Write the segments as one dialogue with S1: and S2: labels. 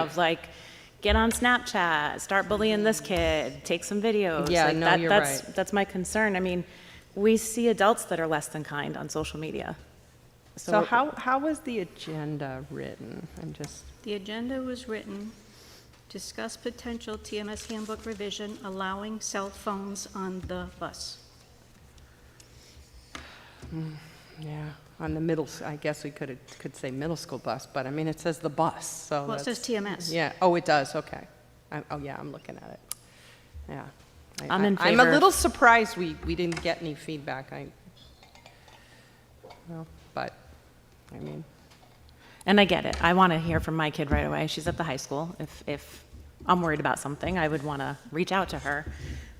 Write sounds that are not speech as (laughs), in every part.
S1: of like, get on Snapchat, start bullying this kid, take some videos.
S2: Yeah,
S1: Like,
S2: no,
S1: that-
S2: you're
S1: that's-
S2: right.
S1: That's my concern. I mean, we see adults that are less than kind on social media.
S2: So how, how was the agenda written? I'm just,
S3: The agenda was written, discuss potential TMS handbook revision allowing cell phones on the bus.
S2: yeah, on the middle, s- I guess we could, could say middle school bus, but I mean, it says the bus, so.
S3: Well, it says
S2: that's-
S3: TMS.
S2: Yeah, oh, it does, okay. I- Oh, yeah, I'm looking at it. Yeah. I-
S1: I'm
S2: I-
S1: in
S2: I'm
S1: favor
S2: a
S1: of-
S2: little surprised we, we didn't get any feedback. I, well, but, I mean,
S1: And I get it. I want to hear from my kid right away. She's at the high school. If, if I'm worried about something, I would want to reach out to her.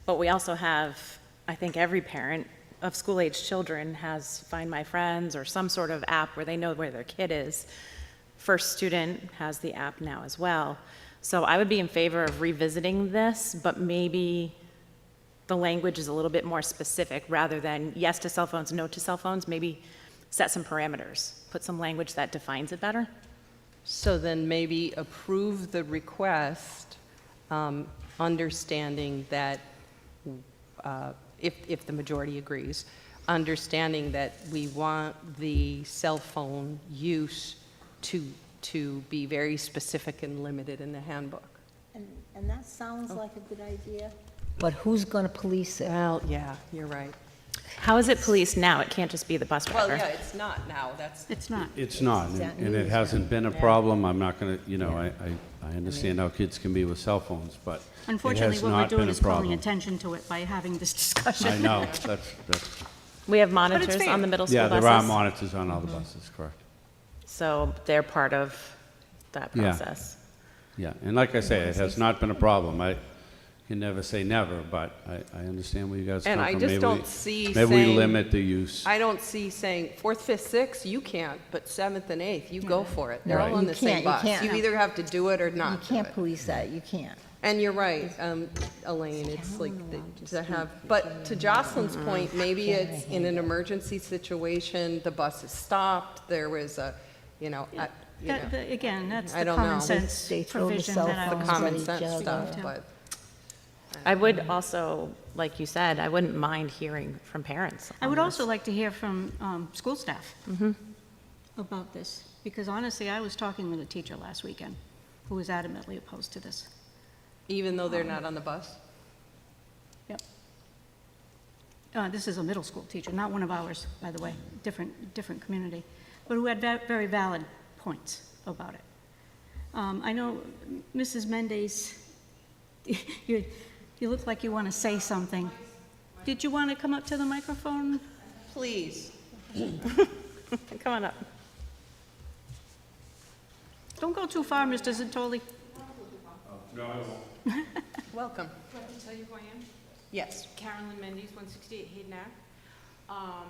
S1: But we also have, I think every parent of school-aged children has Find My Friends or some sort of app where they know where their kid is. First Student has the app now as well. So I would be in favor of revisiting this, but maybe the language is a little bit more specific, rather than yes to cell phones, no to cell phones, maybe set some parameters, put some language that defines it better.
S2: So then maybe approve the request, um, understanding that, uh, if, if the majority agrees, understanding that we want the cell phone use to, to be very specific and limited in the handbook.
S4: And, and that sounds like a good idea, but who's gonna police it?
S2: Well, yeah, you're right.
S1: How is it policed now? It can't just be the bus driver.
S2: Well, yeah, it's not now, that's,
S3: It's not.
S5: It's not, and-
S4: Exactly.
S5: and it hasn't been a problem. I'm not going to, you know, I, I, I understand how kids can be with cell phones, but it
S3: Unfortunately,
S5: has
S3: what we're
S5: not been
S3: doing
S5: a
S3: is calling
S5: problem.
S3: attention to it by having this (laughs)
S5: I
S3: discussion.
S5: know, that's, that's,
S1: We have monitors
S2: fair.
S1: on the middle school
S5: yeah,
S1: buses.
S5: there are monitors on
S3: Mm-hmm.
S5: all the buses, correct.
S1: So they're part of that
S5: Yeah.
S1: process.
S5: Yeah, and like I say, it has not been a problem. I can never say never, but I, I understand where you guys come
S2: And
S5: from.
S2: I just
S5: Maybe we-
S2: don't see
S5: Maybe we
S2: saying-
S5: limit the use.
S2: I don't see saying fourth, fifth, sixth, you can't, but seventh and eighth, you go for it. They're all
S5: Right.
S2: on
S4: You
S2: the same
S4: can't, you
S2: bus.
S4: can't.
S2: You either have to do it or
S4: You
S2: not do it.
S4: can't police that, you can't.
S2: And you're right, um, Elaine, it's like the- to have, but to Jocelyn's point, maybe it's in an emergency situation, the bus is stopped, there was a, you know, a- you know,
S3: That- that- Again, that's
S2: I
S3: the
S2: don't know.
S3: common sense
S4: They throw the
S3: provision
S4: cell
S3: that I
S4: phones
S3: was.
S2: common
S4: each
S2: sense
S4: other.
S2: stuff, but,
S1: I would also, like you said, I wouldn't mind hearing from parents.
S3: I
S1: on
S3: would
S1: this.
S3: also like to hear from um, school staff
S4: Mm-hmm.
S3: about this, because honestly, I was talking with a teacher last weekend who was adamantly opposed to this.
S2: even though they're not on the bus?
S3: Yep. Uh, This is a middle school teacher, not one of ours, by the way, different, different community, but who had va- very valid points about it. Um, I know Mrs. Mendez, (laughs) you, you look like you want to say something. Did you want to come up to the microphone?
S2: Please.
S1: Come on up.
S3: Don't go too far, Mr. Zatoli.
S2: Welcome.
S6: Do I have to tell you who I am?
S2: Yes.
S6: Carolyn Mendes, 168 Hayden Ave. Um,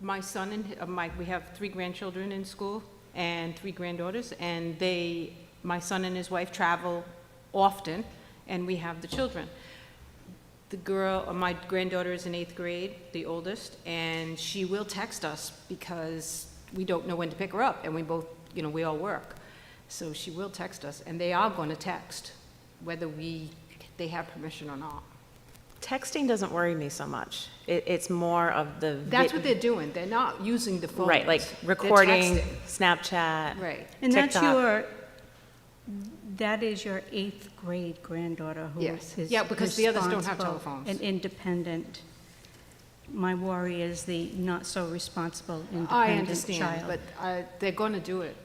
S6: My son and, uh, my, we have three grandchildren in school and three granddaughters, and they, my son and his wife travel often, and we have the children. The girl, uh, my granddaughter is in eighth grade, the oldest, and she will text us because we don't know when to pick her up, and we both, you know, we all work. So she will text us, and they are going to text, whether we, they have permission or not.
S1: Texting doesn't worry me so much. It, it's more of the. vi-
S6: That's what they're doing. They're not using the phone.
S1: Right, like recording, Snapchat.
S6: Right.
S3: And that's
S1: TikTok.
S3: your, that is your eighth grade granddaughter who is
S6: Yes.
S3: his
S6: Yeah, because the others don't have
S3: responsible
S6: telephones.
S3: And independent. My worry is the not-so-responsible,
S6: I
S3: independent
S6: understand,
S3: child.
S6: but uh, they're going to do it,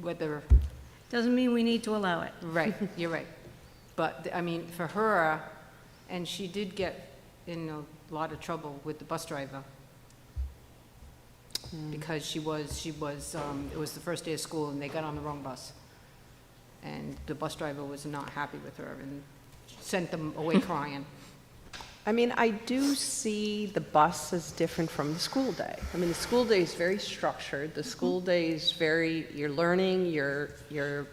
S6: whether,
S3: Doesn't mean we need to allow it.
S6: right, you're right. But, I mean, for her, and she did get in a lot of trouble with the bus driver.
S3: Mm.
S6: Because she was, she was, um, it was the first day of school and they got on the wrong bus. And the bus driver was not happy with her and sent them away crying.
S2: I mean, I do see the bus as different from the school day. I mean, the school day is very structured, the school day is very, you're learning, you're, you're,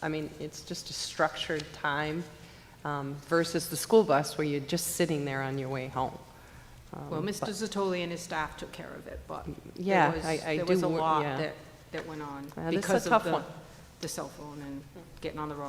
S2: I mean, it's just a structured time um, versus the school bus where you're just sitting there on your way home.
S6: Well, Mr. Zatoli and his staff took care of it, but
S2: Um, Yeah,
S6: there was,
S2: I- I
S6: there was
S2: do
S6: a
S2: wor-
S6: lot
S2: yeah.
S6: that, that went on
S2: Yeah, this is a
S6: because
S2: tough
S6: of the,
S2: one.
S6: the cell phone and getting on the road.